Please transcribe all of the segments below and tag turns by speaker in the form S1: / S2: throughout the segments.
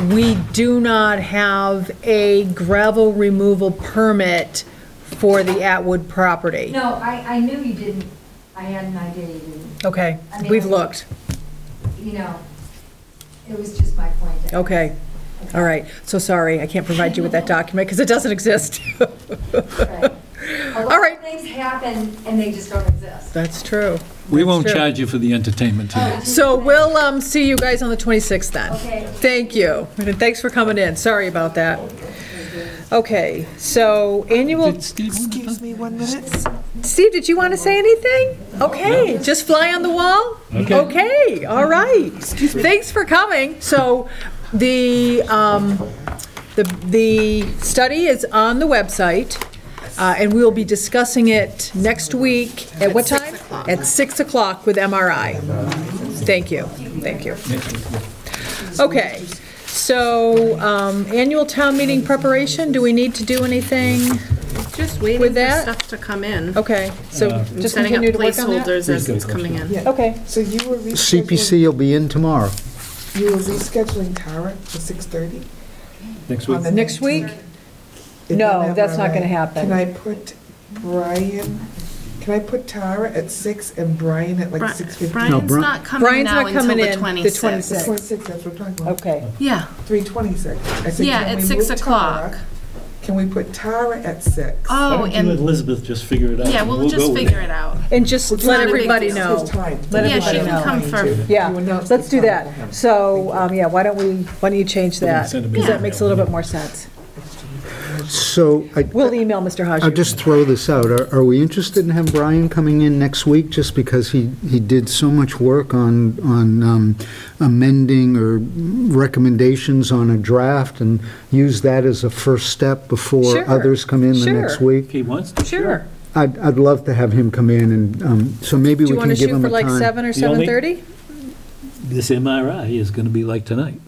S1: we do not have a gravel removal permit for the Atwood property.
S2: No, I, I knew you didn't, I had an idea you didn't,
S1: Okay,
S2: I mean,
S1: we've
S2: I-
S1: looked.
S2: you know, it was just my point. that-
S1: Okay, all right. So sorry, I can't provide you with that document because it doesn't exist.
S2: Right. A
S1: All
S2: lot
S1: right.
S2: of things happen and they just don't exist.
S1: That's true.
S3: We
S1: That's
S3: won't
S1: true.
S3: charge you for the entertainment today.
S1: So we'll um, see you guys on the 26th then.
S2: Okay.
S1: Thank you. And thanks for coming in. Sorry about that. Okay, so annual,
S3: Did Steve want to-
S4: Excuse me one minute.
S1: Steve, did you want to say anything? Okay, just fly on the wall?
S3: Okay.
S1: Okay, all right. Thanks for coming. So the, um, the, the study is on the website, uh, and we'll be discussing it next week. At what time? At 6 o'clock with MRI. Thank you, thank you. Okay, so um, annual town meeting preparation, do we need to do anything?
S5: Just waiting
S1: With
S5: for
S1: that-
S5: stuff to come in.
S1: Okay, so
S5: I'm
S1: just
S5: setting up
S1: continue to work on that?
S5: placeholders as it's coming in.
S1: Okay,
S4: So you were rescheduling.
S6: CPC will be in tomorrow.
S4: You were rescheduling Tara for 6:30?
S3: Next
S4: on the
S1: next week?
S4: 19th? If
S1: No,
S4: I'm
S1: that's not gonna
S4: right.
S1: happen.
S4: Can I put Brian, can I put Tara at 6 and Brian at like
S5: Bri-
S4: 6:15?
S5: Brian's
S6: Bri-
S5: not coming
S1: Brian's
S5: now
S1: not
S5: until
S1: coming
S5: the
S1: in the
S5: 26th.
S1: 26th.
S4: 26, that's what we're talking about.
S1: okay.
S5: Yeah,
S4: 3:26. I said,
S5: yeah,
S4: can
S5: at
S4: we
S5: 6
S4: move
S5: o'clock.
S4: Tara? Can we put Tara at 6?
S3: Why
S5: Oh,
S3: don't you and
S5: and,
S3: Elizabeth just figure it out?
S5: yeah,
S3: and
S5: we'll
S3: go
S5: just
S3: with
S5: figure it out.
S1: And just
S5: not
S1: let
S5: a big
S1: everybody
S5: deal.
S1: know. Let
S5: Yeah, she
S1: everybody
S5: can
S1: know.
S5: come for,
S4: You
S1: Yeah,
S4: announce
S1: let's
S4: the
S1: do
S4: time for
S1: that.
S4: him.
S1: So, um, yeah, why don't we, why don't you change that?
S3: send him an
S1: Because that
S3: email.
S1: makes a little bit more sense.
S6: So I,
S1: We'll email Mr.
S6: I'll
S1: Hodges.
S6: just throw this out. Are, are we interested in having Brian coming in next week just because he, he did so much work on, on um, amending or recommendations on a draft and use that as a first step before
S1: Sure,
S6: others come in the
S1: sure.
S6: next week?
S3: If he wants to.
S1: Sure.
S6: I'd, I'd love to have him come in and, um, so maybe
S1: Do
S6: we
S1: you want
S6: can
S1: to
S6: give
S1: shoot
S6: him
S1: for
S6: a
S1: like
S6: time.
S1: seven or
S3: The only-
S1: 7:30?
S3: This MRI is going to be like tonight.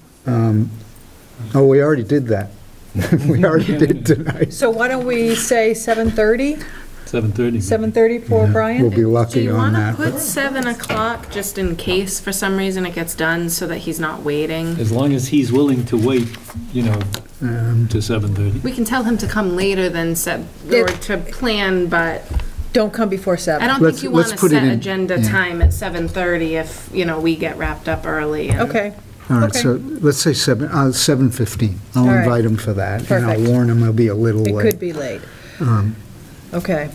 S6: Oh, we already did that. We already did tonight.
S1: So why don't we say 7:30?
S3: 7:30.
S1: 7:30 for
S6: Yeah, We'll
S1: Brian?
S6: be
S5: do
S6: lucky
S5: you
S6: on
S5: want to
S6: that. but-
S5: put 7 o'clock just in case for some reason it gets done so that he's not waiting?
S3: As long as he's willing to wait, you know,
S6: Um,
S3: to 7:30.
S5: We can tell him to come later than set, or
S1: It-
S5: to plan, but
S1: Don't come before
S5: I
S1: 7.
S5: don't think
S6: Let's-
S5: you want
S6: let's
S5: to
S6: put it
S5: set
S6: in,
S5: agenda
S6: yeah.
S5: time at 7:30 if, you know, we get wrapped up early. and-
S1: Okay,
S6: All right,
S1: Okay.
S6: so let's say 7, uh, 7:15.
S1: All
S6: I'll
S1: right.
S6: invite him for that, and I'll
S1: Perfect.
S6: warn him I'll be a little um,
S1: it could
S6: late.
S1: be late. Okay,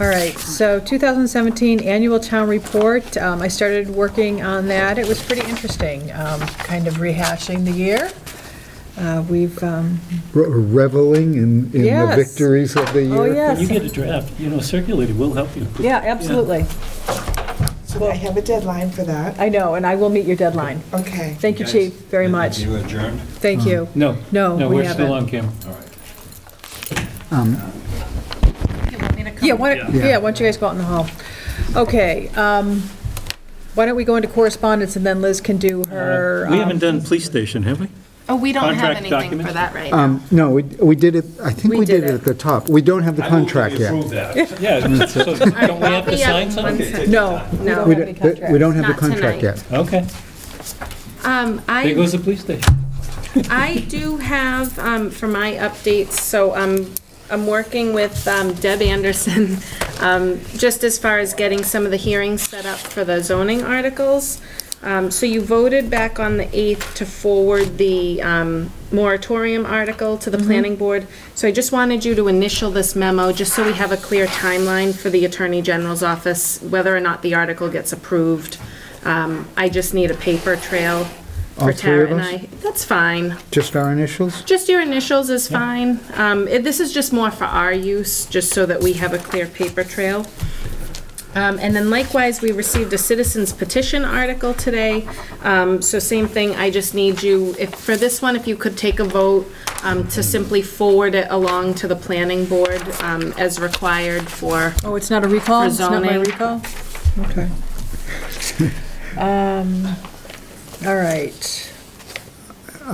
S1: all right. So 2017 Annual Town Report, um, I started working on that. It was pretty interesting, um, kind of rehashing the year. Uh, We've, um,
S6: Re- Reveling in in the
S1: Yes.
S6: victories of the year.
S1: oh,
S3: When
S1: yes,
S3: you get a draft, you know, circulate it, we'll help you.
S1: yeah, absolutely.
S4: So I have a deadline for that.
S1: I know, and I will meet your deadline.
S4: Okay.
S1: Thank you, Chief, very much.
S7: You adjourned?
S1: Thank you. Um,
S3: No.
S1: No, we
S3: we're still
S1: haven't.
S3: on camera.
S1: Yeah, why don't,
S6: Yeah.
S1: yeah, why don't you guys go out in the hall? Okay, um, why don't we go into correspondence, and then Liz can do her...
S3: We
S1: um,
S3: haven't done police station, have we?
S5: Oh, we don't have
S3: Contract
S5: anything
S3: documents?
S5: for that right now.
S6: Um, No, we we did it, I think
S1: We
S6: we did
S1: did
S6: it
S1: it.
S6: at the top. We don't have the contract yet.
S3: Yeah, so don't we have to
S5: Bobby,
S3: sign
S5: um,
S3: something?
S5: one sec.
S1: No, we
S5: No.
S1: don't
S6: We
S1: have any
S6: don't- We
S1: contract.
S6: don't have the
S5: Not
S6: contract
S5: tonight.
S6: yet.
S3: Okay,
S5: Um,
S3: there
S5: I,
S3: goes the police station.
S5: I do have, um, for my updates, so, um, I'm working with, um, Deb Anderson, um, just as far as getting some of the hearings set up for the zoning articles. Um, so you voted back on the eighth to forward the, um, moratorium article to the
S6: Mm-hmm.
S5: planning board. So I just wanted you to initial this memo, just so we have a clear timeline for the Attorney General's office, whether or not the article gets approved. Um, I just need a paper trail
S6: All
S5: for
S6: three
S5: Tara
S6: of
S5: and
S6: us?
S5: I. That's fine.
S6: Just our initials?
S5: Just your initials is fine. Um, it- This is just more for our use, just so that we have a clear paper trail. Um, And then likewise, we received a citizens petition article today. Um, So same thing, I just need you, if, for this one, if you could take a vote um, to simply forward it along to the planning board um, as required for,
S1: Oh, it's not a recall?
S5: For
S1: It's not my
S5: zoning.
S1: recall? Okay. Um, All right.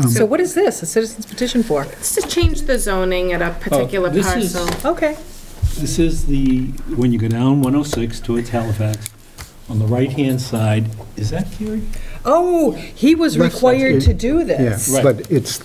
S1: So what is this, a citizen's petition for?
S5: just to change the zoning at a particular
S3: Oh, this is-
S5: parcel.
S1: Okay,
S3: This is the, when you go down 106 towards Halifax, on the right-hand side, is that Gary?
S1: oh, he was
S6: That's-
S1: required to do this.
S6: Yeah,
S3: Right.
S6: but it's